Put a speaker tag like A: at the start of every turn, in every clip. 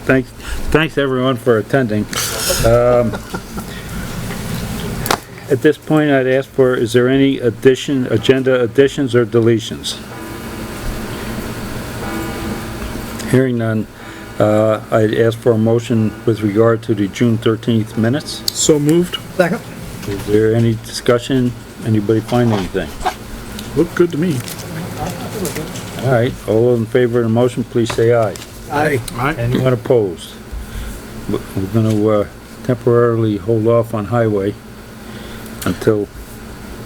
A: thanks, thanks everyone for attending. Um, At this point, I'd ask for, is there any addition, agenda additions or deletions? Hearing none, uh, I'd ask for a motion with regard to the June thirteenth minutes.
B: So moved.
C: Second.
A: Is there any discussion? Anybody find anything?
B: Looked good to me.
A: All right, all in favor of the motion, please say aye.
C: Aye.
B: Aye.
A: Anyone opposed? We- We're gonna uh, temporarily hold off on highway until,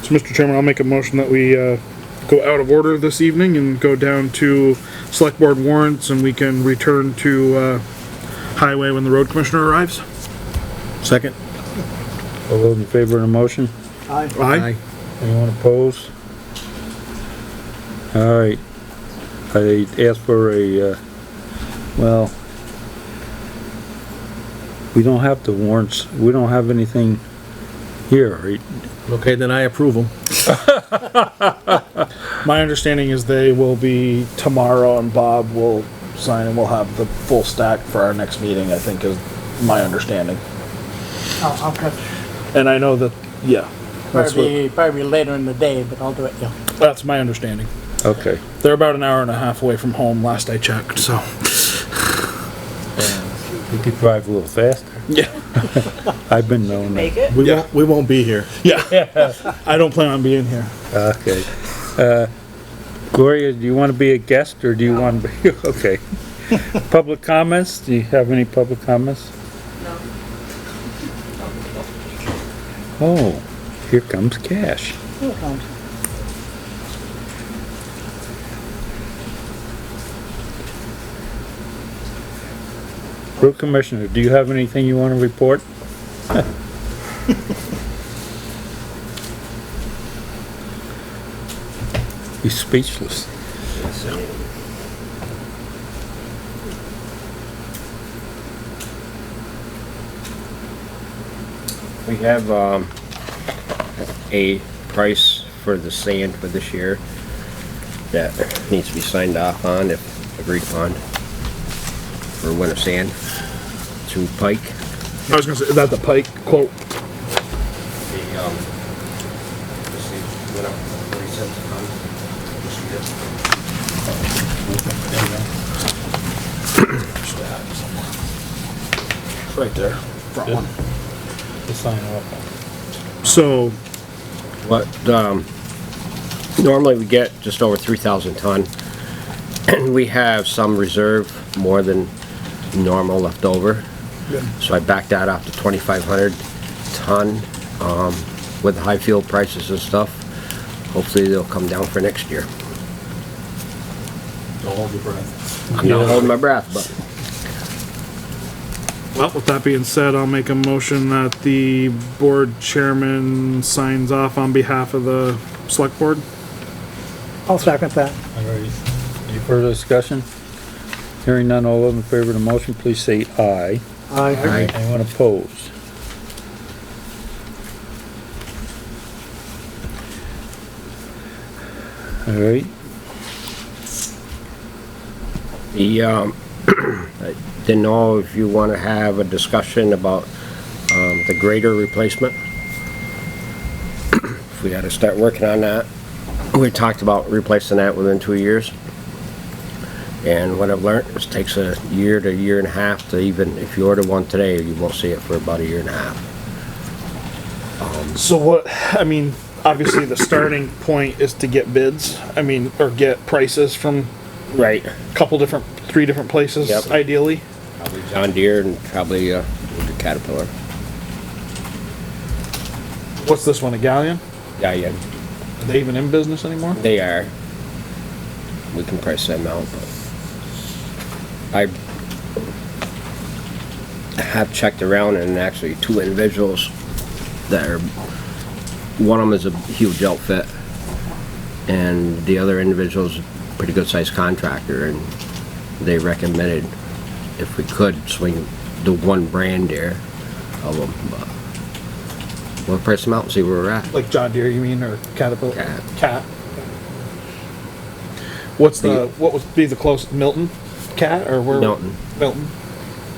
B: So, Mr. Chairman, I'll make a motion that we, uh, go out of order this evening and go down to select board warrants and we can return to, uh, highway when the road commissioner arrives.
C: Second.
A: all those in favor of the motion?
C: Aye.
B: Aye.
A: Anyone opposed? All right. I asked for a, uh, well, we don't have the warrants, we don't have anything here, right?
D: Okay, then I approve them.
C: My understanding is they will be tomorrow and Bob will sign and we'll have the full stack for our next meeting, I think is my understanding.
E: I'll, I'll catch,
C: And I know that, yeah, that's what,
E: probably, probably later in the day, but I'll do it, yeah.
B: That's my understanding.
A: Okay.
B: They're about an hour and a half away from home, last I checked, so.
A: You could drive a little faster.
B: Yeah.
A: I've been known that.
E: it?
D: We won't, we won't be here.
B: Yeah. I don't plan on being here.
A: Okay. Uh, Gloria, do you want to be a guest or do you want to be, okay. Public comments? Do you have any public comments? No. Oh, here comes Cash. Road Commissioner, do you have anything you want to report? He's speechless.
F: We have, um, a price for the sand for this year that needs to be signed off on if agreed upon for winter sand to Pike.
B: I was gonna say, is that the Pike quote?
F: The, um, let's see, went up forty cents a ton this year.
C: right there, front one.
B: So,
F: But, um, normally we get just over three thousand ton. And we have some reserve, more than normal left over. So I backed that up to twenty-five hundred ton, um, with high fuel prices and stuff. Hopefully they'll come down for next year.
D: Don't hold your breath.
F: I'm not holding my breath, but
B: well, with that being said, I'll make a motion that the board chairman signs off on behalf of the select board.
E: I'll second that.
A: All right. Any further discussion? Hearing none, all those in favor of the motion, please say aye.
E: Aye.
F: I,
A: Anyone opposed? All right,
F: The, um, I didn't know if you want to have a discussion about, um, the grader replacement. If we gotta start working on that. We talked about replacing that within two years. And what I've learned is it takes a year to a year and a half to even, if you order one today, you won't see it for about a year and a half.
B: So what, I mean, obviously the starting point is to get bids, I mean, or get prices from
F: Right.
B: a couple different, three different places
F: Yep.
B: ideally.
F: Probably John Deere and probably, uh, the Caterpillar.
B: What's this one, a galleon?
F: Yeah, yeah,
B: Are they even in business anymore?
F: They are. We can price them out, but I have checked around and actually two individuals that are, one of them is a huge outfit and the other individual's a pretty good sized contractor and they recommended if we could swing the one brand there of them, but we'll price them out and see where we're at.
B: Like John Deere, you mean, or Caterpillar?
F: Cat.
B: Cat. Uh, What's the,
F: The-
B: what would be the closest, Milton Cat, or where?
F: Milton.
B: Milton,